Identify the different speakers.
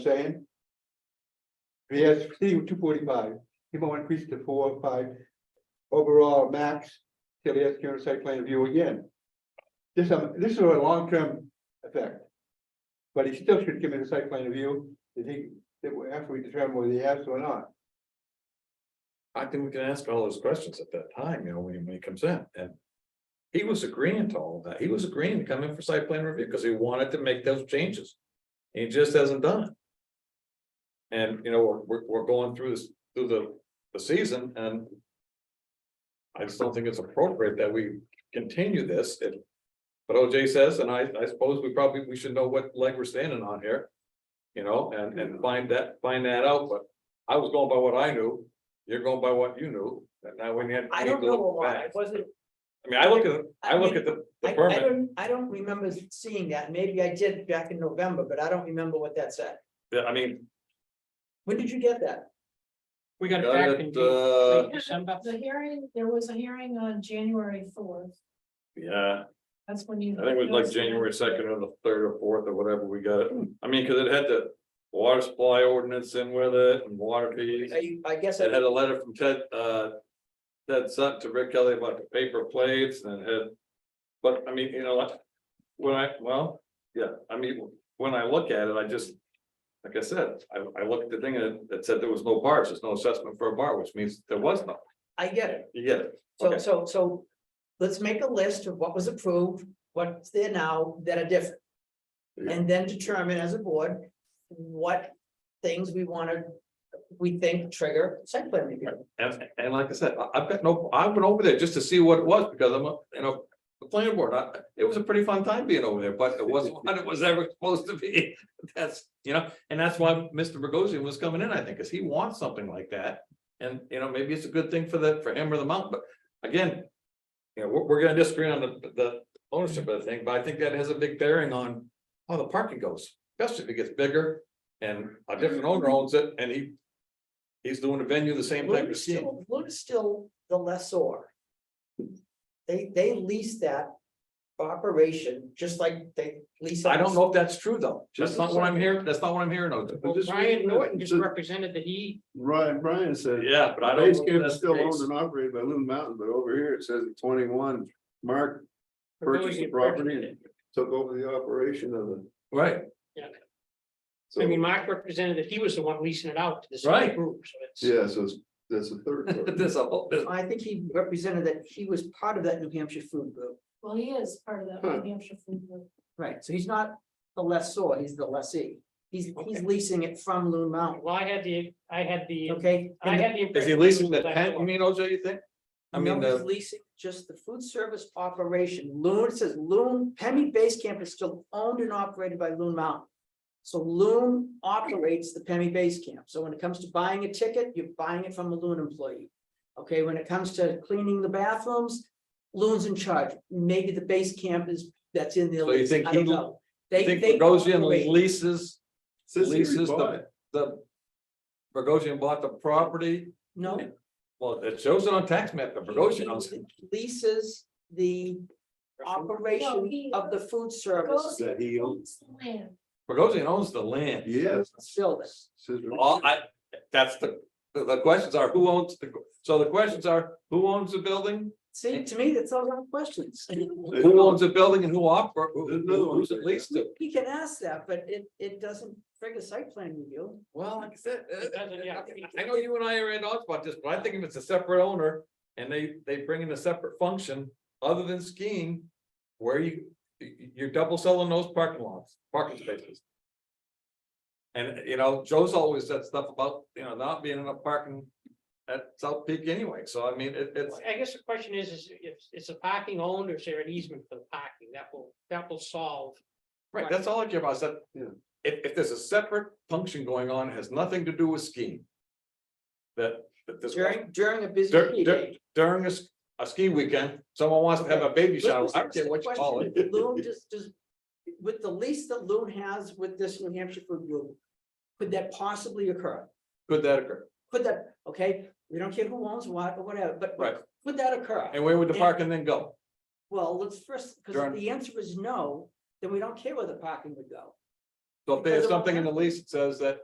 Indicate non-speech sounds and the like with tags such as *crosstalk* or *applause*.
Speaker 1: saying? He has two forty-five, he will increase to four, five, overall max, till he has to do a site plan review again. This, um, this is a long-term effect. But he still should give me the site plan review, that he, that we- after we determine whether he has or not.
Speaker 2: I think we can ask all those questions at that time, you know, when when he comes in and. He was agreeing to all of that. He was agreeing to come in for site plan review because he wanted to make those changes. He just hasn't done it. And, you know, we're- we're, we're going through this, through the, the season and. I just don't think it's appropriate that we continue this. If- But OJ says, and I, I suppose we probably, we should know what leg we're standing on here. You know, and, and find that, find that out, but I was going by what I knew. You're going by what you knew, and now when you had.
Speaker 3: I don't know a lot, I wasn't,
Speaker 2: I mean, I look at, I look at the,
Speaker 3: I,
Speaker 2: the
Speaker 3: I
Speaker 2: permit,
Speaker 3: don't, I don't remember seeing that, maybe I did back in November, but I don't remember what that said.
Speaker 2: Yeah, I mean.
Speaker 3: When did you get that?
Speaker 4: We got it
Speaker 2: got
Speaker 4: back in
Speaker 2: it, uh,
Speaker 4: late December.
Speaker 5: The hearing, there was a hearing on January fourth,
Speaker 2: Yeah,
Speaker 5: that's when you.
Speaker 2: I think it was like January second or the third or fourth or whatever we got it, I mean, cause it had the water supply ordinance in with it and water fees.
Speaker 3: I, I guess
Speaker 2: It
Speaker 3: I,
Speaker 2: had a letter from Ted, uh, Ted Sutton to Rick Kelly about the paper plates and it had. But I mean, you know, like, when I, well, yeah, I mean, when I look at it, I just. Like I said, I, I looked at the thing and it- it said there was no bars, there's no assessment for a bar, which means there was no,
Speaker 3: I get it,
Speaker 2: you get it,
Speaker 3: so,
Speaker 2: Okay.
Speaker 3: so, so. Let's make a list of what was approved, what's there now that are different. And then determine as a board what things we wanna, we think trigger site plan review.
Speaker 2: and, and like I said, I, I've got no, I went over there just to see what it was, because I'm, a you know. The planning board, I, it was a pretty fun time being over there, but it wasn't what it was ever *laughs* supposed to be, that's, you know, and that's why Mr. Bogosian was coming in, I think, because he wants something like that. And, you know, maybe it's a good thing for the, for him or the mountain, but again. You know, we're, we're gonna disagree on the, the ownership of the thing, but I think that has a big bearing on how the parking goes, especially if it gets bigger. And a different owner owns it and he. He's doing a venue the same type of
Speaker 3: Luna's
Speaker 2: scene.
Speaker 3: still, Luna's still the lessor. They, they lease that operation, just like they lease.
Speaker 2: I
Speaker 3: us.
Speaker 2: don't know if that's true, though. That's not what I'm hearing. That's not what I'm hearing. though.
Speaker 4: Well,
Speaker 6: just-
Speaker 4: Brian Norton just
Speaker 6: so-
Speaker 4: represented that he,
Speaker 6: Brian, uh, Brian said.
Speaker 2: Yeah, but I don't.
Speaker 6: Base
Speaker 2: know if
Speaker 6: camp
Speaker 2: that's
Speaker 6: is
Speaker 2: the
Speaker 6: still
Speaker 2: case.
Speaker 6: owned and operated by Loon Mountain, but over here it says twenty-one, Mark purchased the
Speaker 4: Bogosian
Speaker 6: property
Speaker 4: represented.
Speaker 6: and took over the operation of it.
Speaker 2: Right,
Speaker 4: I mean,
Speaker 6: So,
Speaker 4: Mark represented that he was the one leasing it out to this
Speaker 2: Right.
Speaker 4: other group, so it's.
Speaker 6: yeah, so it's, that's a *laughs* third. part.
Speaker 2: *laughs* there's a whole, there's-
Speaker 3: I think he represented that he was part of that New Hampshire food group.
Speaker 5: Well, he is part of
Speaker 6: Huh.
Speaker 5: that New Hampshire food group.
Speaker 3: Right. So he's not the lessor, he's the lessee. He's, he's
Speaker 4: Okay.
Speaker 3: leasing it from Loon Mountain,
Speaker 4: Well, I had the, I had the,
Speaker 3: okay?
Speaker 4: I had
Speaker 2: is
Speaker 4: the.
Speaker 2: he
Speaker 4: impression
Speaker 2: leasing
Speaker 4: was
Speaker 2: the tent, you mean, OJ, you think? I mean,
Speaker 3: No, he's
Speaker 2: the-
Speaker 3: Leasing just the food service operation. Loon, it says Loon, Pemmy Base Camp is still owned and operated by Loon Mountain. So Loon operates the Pemmy Base Camp. So when it comes to buying a ticket, you're buying it from a Loon employee. Okay, when it comes to cleaning the bathrooms, Loon's in charge. Maybe the base camp is, that's in the.
Speaker 2: So you
Speaker 3: lease.
Speaker 2: think
Speaker 3: I don't
Speaker 2: he-
Speaker 3: know.
Speaker 2: I
Speaker 3: They,
Speaker 2: think
Speaker 3: they.
Speaker 2: Bogosian
Speaker 3: operate-
Speaker 2: leases,
Speaker 6: Since he
Speaker 2: leases
Speaker 6: bought
Speaker 2: the,
Speaker 6: it,
Speaker 2: the. Bogosian bought the property,
Speaker 3: No.
Speaker 2: well, it shows it on tax map, but Bogosian owns it.
Speaker 3: Leases the
Speaker 5: No,
Speaker 3: operation
Speaker 5: he-
Speaker 3: of the food
Speaker 5: Goes
Speaker 3: service
Speaker 6: That he owns.
Speaker 5: to Land.
Speaker 2: Bogosian owns the land.
Speaker 6: Yes.
Speaker 3: building.
Speaker 6: Says-
Speaker 2: All I, that's the, the, the questions are, who owns the, so the questions are, who owns the building?
Speaker 3: See, to me, that's all the
Speaker 2: *laughs*
Speaker 3: questions.
Speaker 2: Who owns the building and who oper, who-
Speaker 6: Another one.
Speaker 2: who's it leased to?
Speaker 3: He can ask that, but it, it doesn't trigger site plan review.
Speaker 2: Well, like I said, uh,
Speaker 4: It doesn't, yeah.
Speaker 2: I know you and I are in odds about this, but I think if it's a separate owner and they, they bring in a separate function other than skiing. Where you, you- you're double selling those parking lots, parking spaces. And, you know, Joe's always said stuff about, you know, not being enough parking at South Peak anyway, so I mean, it, it's.
Speaker 4: I guess the question is, is if it's a parking owned or is there an easement for the parking? That will, that will solve.
Speaker 2: Right, that's all I care about, is that,
Speaker 6: Yeah.
Speaker 2: if, if there's a separate function going on, it has nothing to do with skiing. That, that this.
Speaker 3: During, during a busy
Speaker 2: Dur-
Speaker 3: ski
Speaker 2: dur-
Speaker 3: day.
Speaker 2: during a, s- a ski weekend, someone wants to have a baby shower, I don't care what you call it.
Speaker 3: *laughs* Loon just, just, with the lease that Loon has with this New Hampshire food group, could that possibly occur?
Speaker 2: Could that occur?
Speaker 3: Could that, okay, we don't care who owns what or whatever, but
Speaker 2: Right,
Speaker 3: could that occur?
Speaker 2: and where would the parking then go?
Speaker 3: Well, let's first, because
Speaker 2: Darn.
Speaker 3: if the answer is no, then we don't care where the parking would go.
Speaker 2: So if there's something in the lease that says that